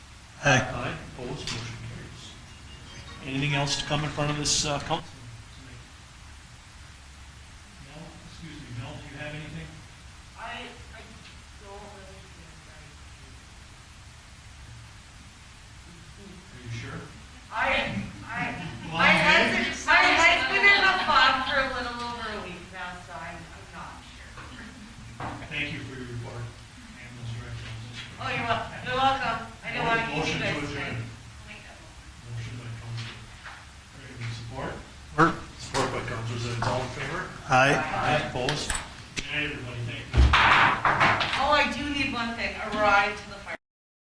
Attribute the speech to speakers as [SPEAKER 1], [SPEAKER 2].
[SPEAKER 1] Aye.
[SPEAKER 2] Aye, opposed, motion carries. Anything else to come in front of this uh, council? Mel, excuse me, Mel, do you have anything?
[SPEAKER 3] I, I don't really think I
[SPEAKER 2] Are you sure?
[SPEAKER 3] I, I, my husband, my husband been in a farm for a little over a week now, so I'm, I'm not sure.
[SPEAKER 2] Thank you for your report, ambulance director.
[SPEAKER 3] Oh, you're welcome, you're welcome. I don't want to keep you
[SPEAKER 2] Motion to
[SPEAKER 3] guys.
[SPEAKER 2] adjourn. Motion by Council, support? Support by Council Zins, all in favor?
[SPEAKER 1] Aye.
[SPEAKER 2] Aye, opposed? Aye, everybody, thank you.
[SPEAKER 3] Oh, I do need one thing, a ride to